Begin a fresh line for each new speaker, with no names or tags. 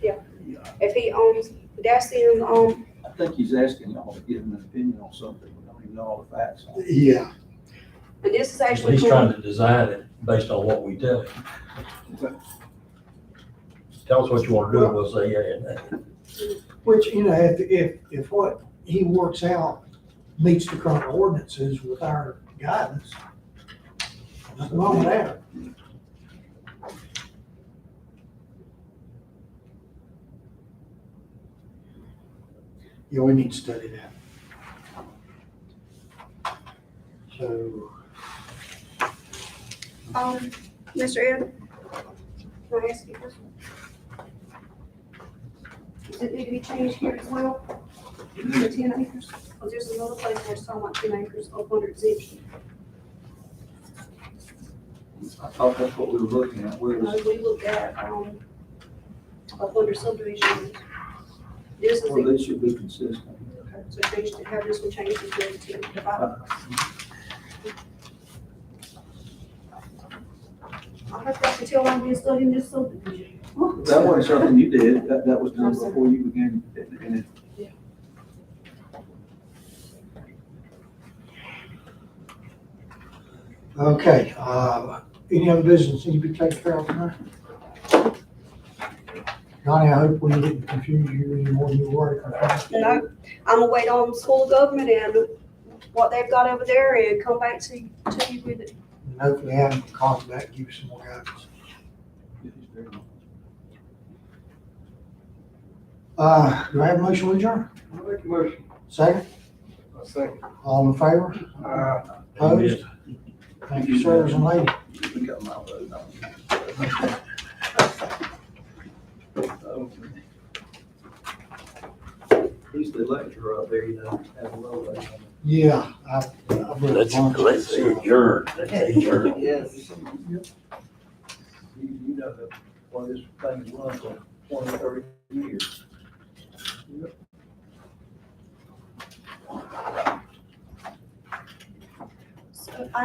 if he owns, that's his own,
I think he's asking y'all to give him an opinion on something, we don't even know all the facts on.
Yeah,
and this is actually.
He's trying to design it based on what we tell him. Tell us what you want to do, and we'll say, yeah, yeah, yeah.
which, you know, if, if, if what he works out meets the current ordinances with our guidance, nothing wrong with that. Yeah, we need to study that. So,
Um, Mr. Ed? Can I ask you a question? Does it need to be changed here as well? The ten acres? Because there's another place where it's talking about ten acres up under exemption.
I thought that's what we were looking at, where
No,
was,
we looked at, um, up under subdivision. This is,
where
the-
they should be consistent.
okay, so change to, have this one changed to ten, to five. I hope I can tell I'm being studying this subdivision.
That wasn't something you did, that, that was done before you began, and- and it-
okay, uh, any other business need to be taken care of tonight? Donnie, I hope we didn't confuse you any more than you were.
And I, I'm gonna wait on school government and what they've got over there and come back to, to you with it.
And hopefully have them call back, give you some more guidance.
it's very much.
Uh, do I have a motion to adjourn?
I'll make a motion.
Second,
I'll second.
all in favor?
Uh,
Opposed? Thank you, sirs and ladies.
We got my vote, no. He's the lecturer up there, you know, at a low level.
Yeah, I, I believe.
Let's, let's adjourn, let's adjourn.
Yes. You, you know, that, well, this thing runs on twenty, thirty years.